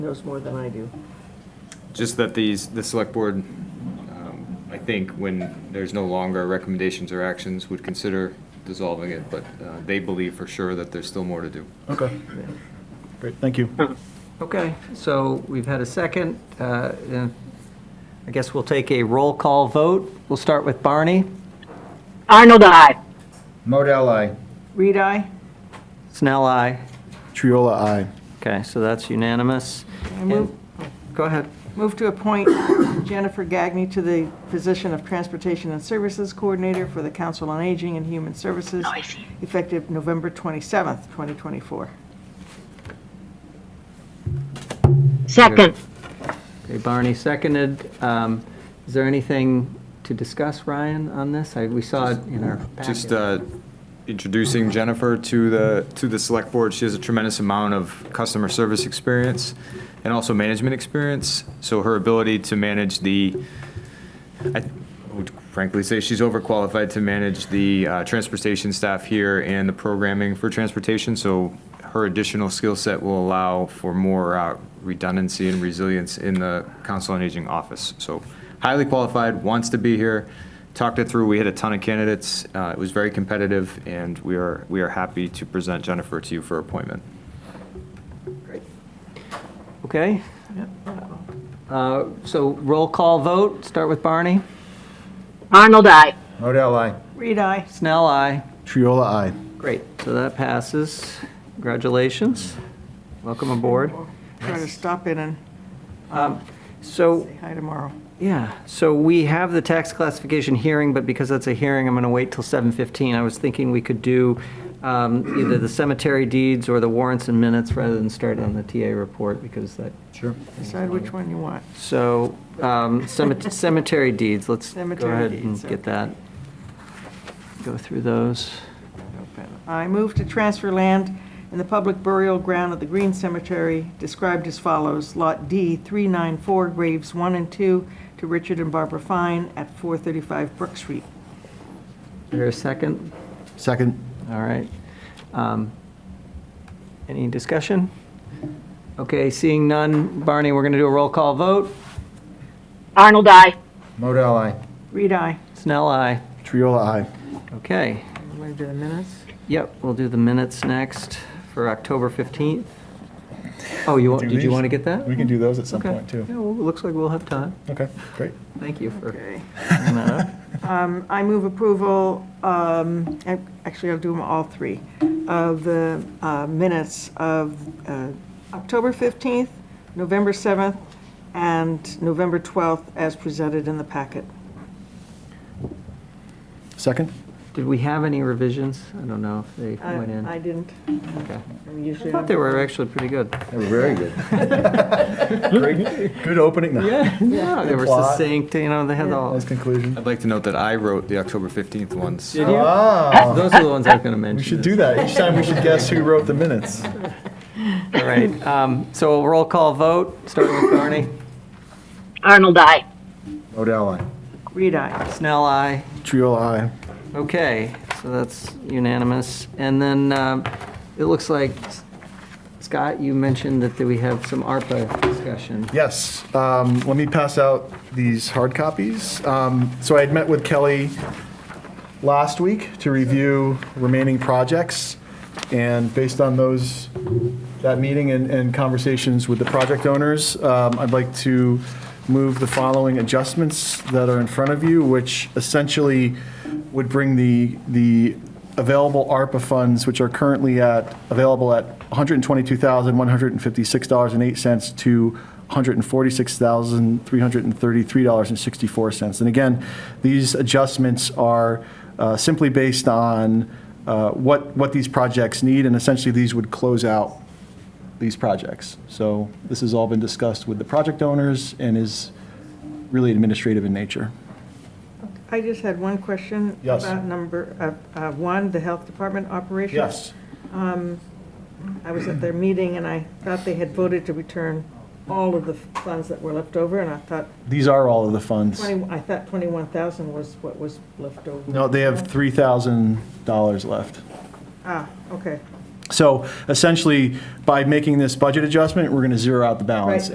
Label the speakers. Speaker 1: knows more than I do.
Speaker 2: Just that these, the select board, um, I think, when there's no longer recommendations or actions, would consider dissolving it, but uh, they believe for sure that there's still more to do.
Speaker 3: Okay, great, thank you.
Speaker 4: Okay, so we've had a second. uh, and I guess we'll take a roll call vote. We'll start with Barney.
Speaker 5: Arnold, I.
Speaker 6: Model I.
Speaker 1: Reed, I?
Speaker 4: Snell, aye.
Speaker 3: Triola, aye.
Speaker 4: Okay, so that's unanimous.
Speaker 1: move-
Speaker 4: And- Go ahead.
Speaker 1: Move to appoint Jennifer Gagnon to the position of Transportation and Services Coordinator for the Council on Aging and Human Services, effective November 27th, 2024.
Speaker 5: Second.
Speaker 4: Okay, Barney seconded. Um, Is there anything to discuss, Ryan, on this? I- We saw it in our
Speaker 2: Just
Speaker 4: packet.
Speaker 2: uh, introducing Jennifer to the, to the select board, she has a tremendous amount of customer service experience and also management experience, so her ability to manage the, I would frankly say she's overqualified to manage the uh, transportation staff here and the programming for transportation, so her additional skill set will allow for more uh, redundancy and resilience in the Council on Aging office. So highly qualified, wants to be here, talked it through, we had a ton of candidates, uh, it was very competitive, and we are, we are happy to present Jennifer to you for appointment.
Speaker 4: Okay? Uh, So roll call vote, start with Barney.
Speaker 5: Arnold, I.
Speaker 6: Model I.
Speaker 1: Reed, I?
Speaker 4: Snell, aye.
Speaker 3: Triola, aye.
Speaker 4: Great, so that passes. Congratulations. Welcome aboard.
Speaker 1: Try to stop in and
Speaker 4: So,
Speaker 1: say hi tomorrow.
Speaker 4: yeah, so we have the tax classification hearing, but because that's a hearing, I'm going to wait till 7:15. I was thinking we could do um, either the cemetery deeds or the warrants and minutes rather than start on the TA report because that,
Speaker 3: Sure.
Speaker 1: Decide which one you want.
Speaker 4: so um, cemet- cemetery deeds, let's go
Speaker 1: Cemetery
Speaker 4: ahead and
Speaker 1: deeds,
Speaker 4: get that. Go through those.
Speaker 1: I move to transfer land in the public burial ground of the Green Cemetery, described as follows, Lot D, 394, graves 1 and 2, to Richard and Barbara Fine at 435 Brook Street.
Speaker 4: Is there a second?
Speaker 3: Second.
Speaker 4: All right. Um, Any discussion? Okay, seeing none, Barney, we're going to do a roll call vote.
Speaker 5: Arnold, I.
Speaker 6: Model I.
Speaker 1: Reed, I.
Speaker 4: Snell, aye.
Speaker 3: Triola, aye.
Speaker 4: Okay,
Speaker 1: I'm going to do the minutes.
Speaker 4: yep, we'll do the minutes next for October 15th. Oh, you, want?
Speaker 3: Do
Speaker 4: did you
Speaker 3: these?
Speaker 4: want to get that?
Speaker 3: We can do those at some
Speaker 4: Okay.
Speaker 3: point, too.
Speaker 4: Yeah, well, it looks like we'll have time.
Speaker 3: Okay, great.
Speaker 4: Thank you for
Speaker 1: Okay.
Speaker 4: bringing that up.
Speaker 1: Um, I move approval, um, ac- actually, I'll do them all three, of the uh, minutes of uh, October 15th, November 7th, and November 12th, as presented in the packet.
Speaker 3: Second?
Speaker 4: Did we have any revisions? I don't know if they
Speaker 1: I
Speaker 4: went in.
Speaker 1: I didn't.
Speaker 4: Okay.
Speaker 1: I'm
Speaker 4: I
Speaker 1: usually-
Speaker 4: thought they were actually pretty good.
Speaker 6: They were very good.
Speaker 3: Good opening.
Speaker 4: Yeah, yeah, they were
Speaker 3: Plot.
Speaker 4: succinct, you know, they had all.
Speaker 3: Nice conclusion.
Speaker 2: I'd like to note that I wrote the October 15th ones.
Speaker 4: Did you?
Speaker 3: Ah,
Speaker 4: Those are the ones I was going to mention.
Speaker 3: we should do that. Each time we should guess who wrote the minutes.
Speaker 4: All right, um, so a roll call vote, starting with Barney.
Speaker 5: Arnold, I.
Speaker 6: Model I.
Speaker 1: Reed, I.
Speaker 4: Snell, aye.
Speaker 3: Triola, aye.
Speaker 4: Okay, so that's unanimous. And then um, it looks like, Scott, you mentioned that we have some ARPA discussion.
Speaker 3: Yes, um, let me pass out these hard copies. Um, So I had met with Kelly last week to review remaining projects, and based on those, that meeting and, and conversations with the project owners, um, I'd like to move the following adjustments that are in front of you, which essentially would bring the, the available ARPA funds, which are currently at, available at $122,156.08 to $146,333.64. And again, these adjustments are uh, simply based on uh, what, what these projects need, and essentially, these would close out these projects. So this has all been discussed with the project owners and is really administrative in nature.
Speaker 1: I just had one question.
Speaker 3: Yes.
Speaker 1: About number, uh, uh, one, the Health Department operations. I was at their meeting, and I thought they had voted to return all of the funds that were left over, and I thought
Speaker 3: These are all of the funds.
Speaker 1: 20, I thought 21,000 was what was left over.
Speaker 3: No, they have $3,000 left.
Speaker 1: Ah, okay.
Speaker 3: So essentially, by making this budget adjustment, we're going to zero out the balance.
Speaker 1: Right.